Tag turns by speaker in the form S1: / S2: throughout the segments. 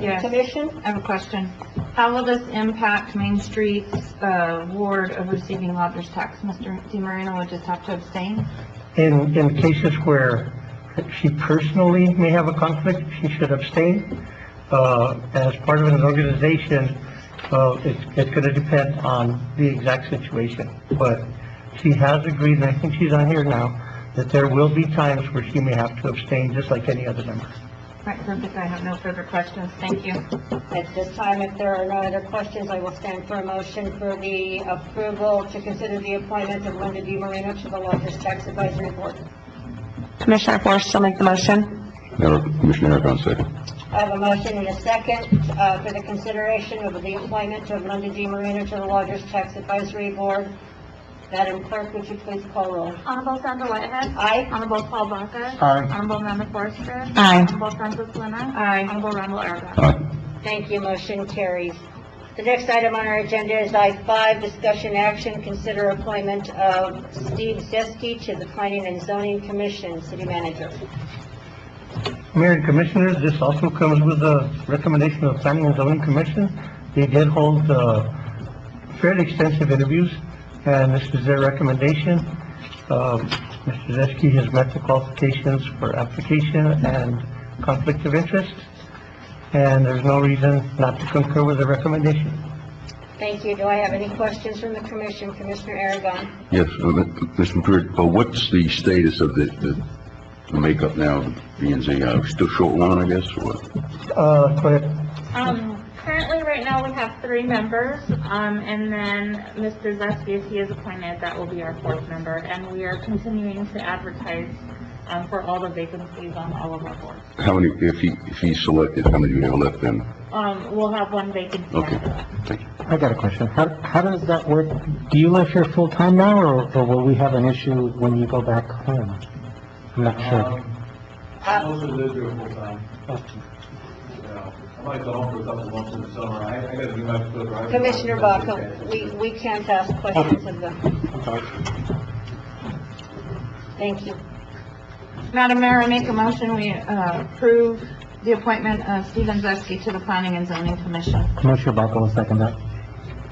S1: Yes.
S2: Commission?
S1: I have a question. How will this impact Main Street's uh, ward of receiving lodger's tax? Mr. DiMarino would just have to abstain?
S3: In, in cases where she personally may have a conflict, she should abstain. Uh, as part of an organization, uh, it's, it's gonna depend on the exact situation. But she has agreed, and I think she's on here now, that there will be times where she may have to abstain, just like any other member.
S1: Right, perfect, I have no further questions, thank you.
S2: At this time, if there are no other questions, I will stand for a motion for the approval to consider the appointment of Linda D. Marino to the Lodgers Tax Advisory Board.
S4: Commissioner Forrest will make the motion.
S5: Eric- Commissioner Akon, second.
S2: I have a motion and a second uh, for the consideration of the appointment of Linda D. Marino to the Lodgers Tax Advisory Board. Madam Clerk, would you please call roll?
S6: Honorable Sandra Whitehead.
S2: Aye.
S6: Honorable Paul Baca.
S3: Aye.
S6: Honorable Amanda Forrester.
S4: Aye.
S6: Honorable Francis Lina.
S1: Aye.
S6: Honorable Randall Aragon.
S5: Aye.
S2: Thank you, motion carries. The next item on our agenda is I-5, discussion action, consider appointment of Steve Zeski to the Planning and Zoning Commission, City Manager.
S3: Mayor and Commissioners, this also comes with a recommendation of Planning and Zoning Commission. They did hold, uh, fairly extensive interviews, and this is their recommendation. Um, Mr. Zeski has met the qualifications for application and conflict of interest, and there's no reason not to concur with the recommendation.
S2: Thank you. Do I have any questions from the commission? Commissioner Aragon?
S5: Yes, uh, Mr. McCreary, uh, what's the status of the, the- the makeup now, B and Z? Uh, Still short one, I guess, or what?
S3: Uh, go ahead.
S6: Um, currently, right now, we have three members, um, and then Mr. Zesty, if he is appointed, that will be our fourth member, and we are continuing to advertise, um, for all the vacancies on all of our boards.
S5: How many, if he, if he's selected, how many do you have left then?
S6: Um, we'll have one vacancy
S5: Okay,
S6: after that.
S5: thank you.
S7: I got a question. How, how does that work? Do you live here full-time now, or, or will we have an issue when you go back home? I'm not sure.
S8: I also live here full time.
S3: Uh,
S8: Yeah, I might go home for a couple of months in the summer. I, I gotta do my foot right.
S2: Commissioner Baca, we, we can't ask questions of them. Thank you.
S1: Madam Mayor, I make a motion, we uh, approve the appointment of Steven Zeski to the Planning and Zoning Commission.
S7: Commissioner Baca will second that.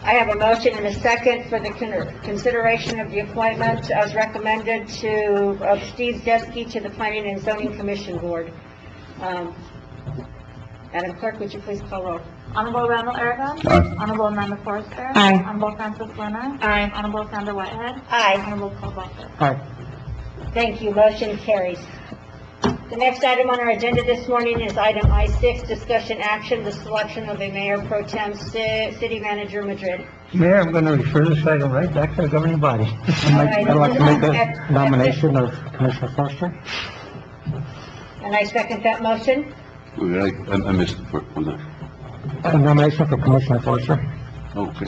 S2: I have a motion and a second for the con- consideration of the appointment as recommended to, of Steve Zeski to the Planning and Zoning Commission Board. Um, Madam Clerk, would you please call roll?
S6: Honorable Randall Aragon.
S5: Aye.
S6: Honorable Amanda Forrester.
S4: Aye.
S6: Honorable Francis Lina.
S1: Aye.
S6: Honorable Sandra Whitehead.
S2: Aye.
S6: Honorable Paul Baca.
S7: Aye.
S2: Thank you, motion carries. The next item on our agenda this morning is item I-6, discussion action, the selection of a mayor pro tem ci- city manager Madrid.
S3: Mayor, I'm gonna refer this item right back to the governing body.
S7: I'd like- I'd like to make a nomination of Commissioner Forrester.
S2: And I second that motion.
S5: Well, I, I- I missed, the fir- was it?
S7: A nomination for Commissioner Forrester.
S5: Okay.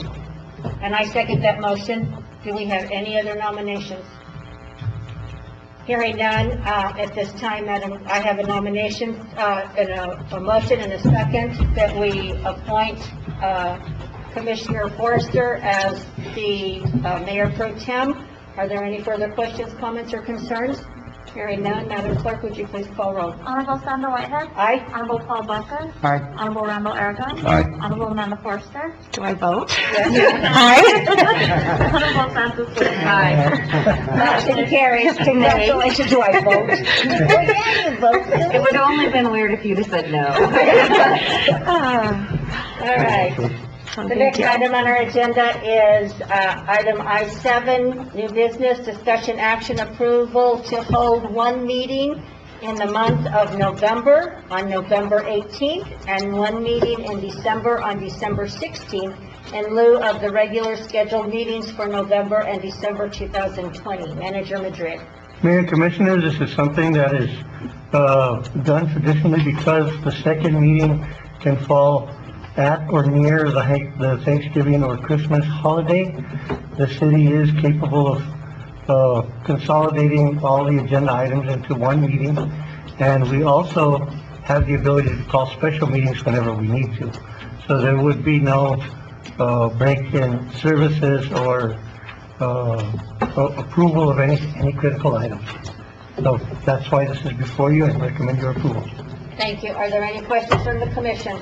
S2: And I second that motion. Do we have any other nominations? Hearing none, uh, at this time, Madam, I have a nomination, uh, and a, a motion and a second that we appoint, uh, Commissioner Forrester as the, uh, Mayor Pro Tem. Are there any further questions, comments, or concerns? Hearing none, Madam Clerk, would you please call roll?
S6: Honorable Sandra Whitehead.
S2: Aye?
S6: Honorable Paul Baca.
S7: Aye.
S6: Honorable Randall Aragon.
S5: Aye.
S6: Honorable Amanda Forster.
S4: Do I vote?
S2: Yes.
S4: Aye.
S6: Honorable Francis Lina.
S2: Motion carries. Congratulations, do I vote? Well, yeah, you vote.
S1: It would only been weird if you'd have said no.
S2: All right. The next item on our agenda is uh, item I-7, new business, discussion action approval to hold one meeting in the month of November, on November 18th, and one meeting in December, on December 16th, in lieu of the regular scheduled meetings for November and December 2020. Manager Madrid.
S3: Mayor and Commissioners, this is something that is, uh, done traditionally because the second meeting can fall at or near the ha- the Thanksgiving or Christmas holiday. The city is capable of, uh, consolidating all the agenda items into one meeting. And we also have the ability to call special meetings whenever we need to. So there would be no, uh, break in services or, uh, a- approval of any, any critical items. So that's why this is before you and recommend your approval.
S2: Thank you. Are there any questions from the commission?